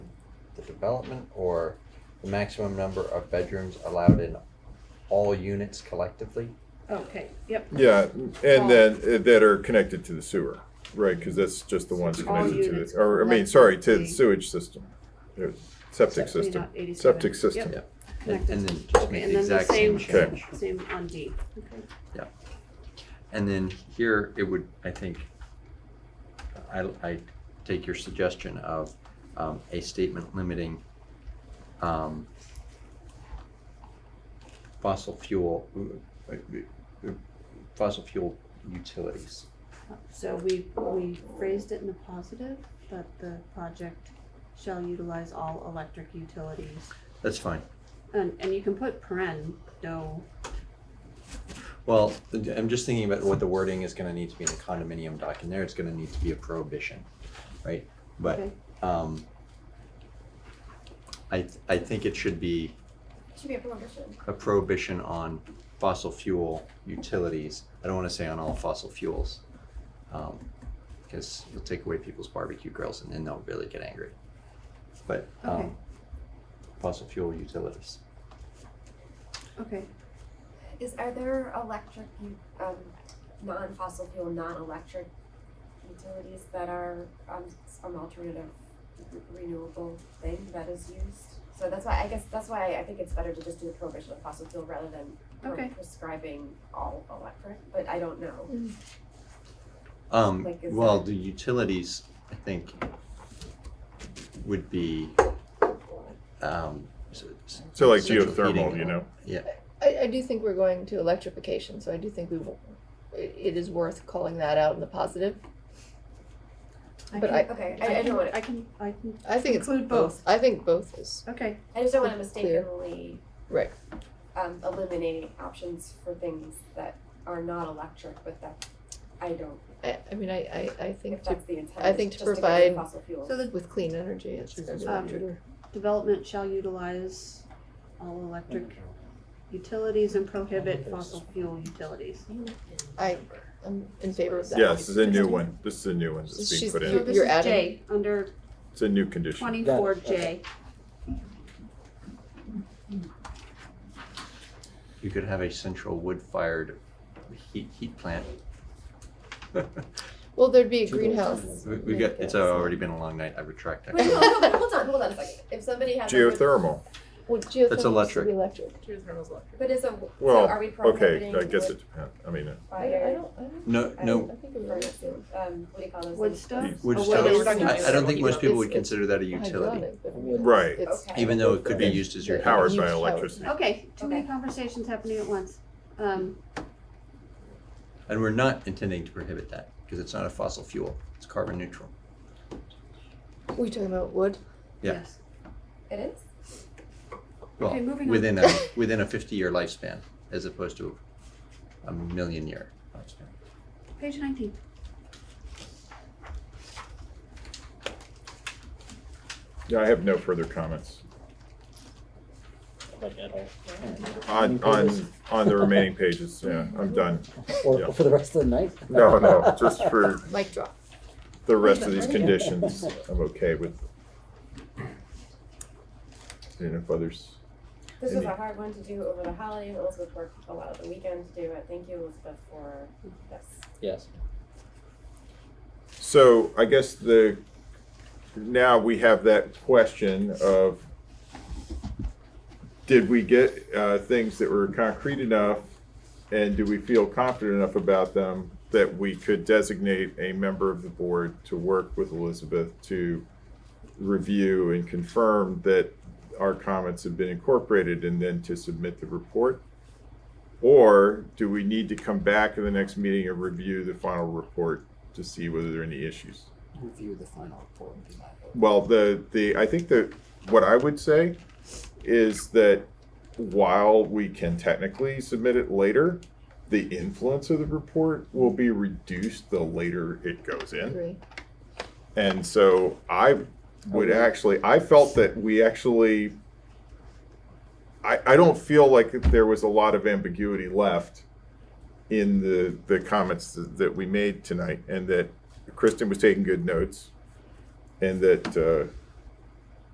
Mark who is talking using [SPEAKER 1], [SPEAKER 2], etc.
[SPEAKER 1] the development or the maximum number of bedrooms allowed in all units collectively?
[SPEAKER 2] Okay, yep,
[SPEAKER 3] Yeah, and then, uh, that are connected to the sewer, right, because that's just the ones
[SPEAKER 2] All
[SPEAKER 3] connected to
[SPEAKER 2] units
[SPEAKER 3] the, or, I mean, sorry, to the
[SPEAKER 2] collectively.
[SPEAKER 3] sewage system. uh, Septic
[SPEAKER 2] Except maybe
[SPEAKER 3] system,
[SPEAKER 2] not 87.
[SPEAKER 3] septic system.
[SPEAKER 2] Yep.
[SPEAKER 1] And
[SPEAKER 2] connected.
[SPEAKER 1] and then just
[SPEAKER 2] Okay,
[SPEAKER 1] make
[SPEAKER 2] and
[SPEAKER 1] the
[SPEAKER 2] then the
[SPEAKER 1] exact same
[SPEAKER 2] same,
[SPEAKER 3] Okay.
[SPEAKER 1] change.
[SPEAKER 2] same on D. Okay.
[SPEAKER 1] And then here, it would, I think, I, I take your suggestion of um, a statement limiting um, fossil fuel, uh, fossil fuel utilities.
[SPEAKER 2] So we, we phrased it in the positive, that the project shall utilize all electric utilities.
[SPEAKER 1] That's fine.
[SPEAKER 2] And, and you can put paren, no,
[SPEAKER 1] Well, I'm just thinking about what the wording is gonna need to be in the condominium doc, and there it's gonna need to be a prohibition, right? But,
[SPEAKER 2] okay,
[SPEAKER 1] um, I, th- I think it should be
[SPEAKER 4] Should be a prohibition.
[SPEAKER 1] a prohibition on fossil fuel utilities. I don't wanna say on all fossil fuels. um, Cause you'll take away people's barbecue grills and then they'll really get angry. But,
[SPEAKER 2] Okay.
[SPEAKER 1] um, fossil fuel utilities.
[SPEAKER 2] okay.
[SPEAKER 4] Is, are there electric, u- um, non-fossil fuel, non-electric utilities that are, um, some alternative re- renewable thing that is used? So that's why, I guess, that's why I think it's better to just do the prohibition of fossil fuel rather than pro-
[SPEAKER 2] Okay.
[SPEAKER 4] prescribing all electric, but I don't know.
[SPEAKER 5] Mm-hmm.
[SPEAKER 1] Um,
[SPEAKER 4] Like, is
[SPEAKER 1] well,
[SPEAKER 4] that-
[SPEAKER 1] the utilities, I think, would be, um. s- s-
[SPEAKER 3] So like
[SPEAKER 1] central
[SPEAKER 3] geothermal,
[SPEAKER 1] heating.
[SPEAKER 3] you know,
[SPEAKER 1] Yeah,
[SPEAKER 5] I, I do think we're going to electrification, so I do think we, w- it, it is worth calling that out in the positive. But
[SPEAKER 2] can-
[SPEAKER 5] I-
[SPEAKER 4] Okay, I, I don't want,
[SPEAKER 2] I can, I can,
[SPEAKER 5] I think it's
[SPEAKER 2] Include both.
[SPEAKER 5] I think both is
[SPEAKER 2] okay,
[SPEAKER 4] I just don't want to
[SPEAKER 5] It's clear.
[SPEAKER 4] mistakenly
[SPEAKER 5] right.
[SPEAKER 4] um, eliminating options for things that are not electric, but that, I don't,
[SPEAKER 5] I, I mean, I, I, I think
[SPEAKER 4] if
[SPEAKER 5] to,
[SPEAKER 4] that's the intent,
[SPEAKER 5] I think
[SPEAKER 4] is
[SPEAKER 5] to
[SPEAKER 4] just get rid of
[SPEAKER 5] provide-
[SPEAKER 4] fossil fuels.
[SPEAKER 2] so the
[SPEAKER 5] with clean energy, it's
[SPEAKER 1] This is
[SPEAKER 2] um,
[SPEAKER 5] electric.
[SPEAKER 2] development shall utilize all electric utilities and prohibit fossil fuel utilities.
[SPEAKER 5] I, I'm in favor of that.
[SPEAKER 3] yeah, this is a new one, this is a new one that's being
[SPEAKER 5] She's-
[SPEAKER 3] put
[SPEAKER 2] So
[SPEAKER 3] in,
[SPEAKER 2] this
[SPEAKER 5] You're
[SPEAKER 2] is
[SPEAKER 5] adding-
[SPEAKER 2] J, under
[SPEAKER 3] it's a new condition.
[SPEAKER 2] twenty-four J.
[SPEAKER 1] you could have a central wood-fired heat, heat plant.
[SPEAKER 5] Well, there'd be a greenhouse.
[SPEAKER 1] We, we got, it's already been a long night, I retract
[SPEAKER 4] Wait,
[SPEAKER 1] that.
[SPEAKER 4] no, hold on, hold on, hold on a second. If somebody has. a wood-
[SPEAKER 3] Geothermal,
[SPEAKER 5] Well, geothermal should
[SPEAKER 1] electric.
[SPEAKER 5] be electric.
[SPEAKER 4] But is a, so are
[SPEAKER 3] well,
[SPEAKER 4] we
[SPEAKER 3] okay,
[SPEAKER 4] prohibiting
[SPEAKER 3] I guess it
[SPEAKER 4] wood
[SPEAKER 3] depends, I mean, uh,
[SPEAKER 5] I don't, I don't, I don't-
[SPEAKER 1] No,
[SPEAKER 4] I
[SPEAKER 1] no,
[SPEAKER 5] I think it was
[SPEAKER 4] furnaces? Um, what do you call those?
[SPEAKER 2] Wood
[SPEAKER 4] things?
[SPEAKER 2] stove?
[SPEAKER 1] wood
[SPEAKER 5] Oh,
[SPEAKER 1] stove,
[SPEAKER 5] what is-
[SPEAKER 1] I, I don't think most people would
[SPEAKER 5] It's- it's
[SPEAKER 1] consider that a utility,
[SPEAKER 5] hydraulic, but
[SPEAKER 3] Right.
[SPEAKER 5] it's-
[SPEAKER 4] Okay.
[SPEAKER 1] even though it could be used as your.
[SPEAKER 5] Yeah.
[SPEAKER 3] powered
[SPEAKER 5] Huge
[SPEAKER 3] by
[SPEAKER 5] power.
[SPEAKER 3] electricity.
[SPEAKER 2] Okay, too many
[SPEAKER 4] Okay.
[SPEAKER 2] conversations happening at once. Um,
[SPEAKER 1] And we're not intending to prohibit that, because it's not a fossil fuel, it's carbon neutral.
[SPEAKER 5] We talking about wood?
[SPEAKER 1] Yeah.
[SPEAKER 2] yes.
[SPEAKER 4] It is?
[SPEAKER 1] Well,
[SPEAKER 2] Okay, moving on.
[SPEAKER 1] within a, within a fifty-year lifespan, as opposed to a million-year lifespan.
[SPEAKER 2] Page nineteen.
[SPEAKER 3] Yeah, I have no further comments.
[SPEAKER 6] like at all.
[SPEAKER 3] On, on, on the remaining pages, yeah, I'm done.
[SPEAKER 6] Or
[SPEAKER 3] Yeah.
[SPEAKER 6] for the rest of the night?
[SPEAKER 3] No, no, just for
[SPEAKER 5] Mic drop.
[SPEAKER 3] the rest of these conditions, I'm okay with. And if others,
[SPEAKER 4] This was
[SPEAKER 3] Maybe.
[SPEAKER 4] a hard one to do over the holidays. Elizabeth worked a lot of the weekend to do it. Thank you, Elizabeth, for this.
[SPEAKER 6] Yes.
[SPEAKER 3] so I guess the, now we have that question of, did we get, uh, things that were concrete enough? And do we feel confident enough about them that we could designate a member of the board to work with Elizabeth to review and confirm that our comments have been incorporated and then to submit the report? Or do we need to come back in the next meeting and review the final report to see whether there are any issues?
[SPEAKER 6] Review the final report would be my vote.
[SPEAKER 3] Well, the, the, I think that what I would say is that while we can technically submit it later, the influence of the report will be reduced the later it goes in.
[SPEAKER 5] Agree.
[SPEAKER 3] And so I would
[SPEAKER 6] Okay.
[SPEAKER 3] actually, I felt that we actually, I, I don't feel like that there was a lot of ambiguity left in the, the comments th- that we made tonight, and that Kristen was taking good notes, and that uh,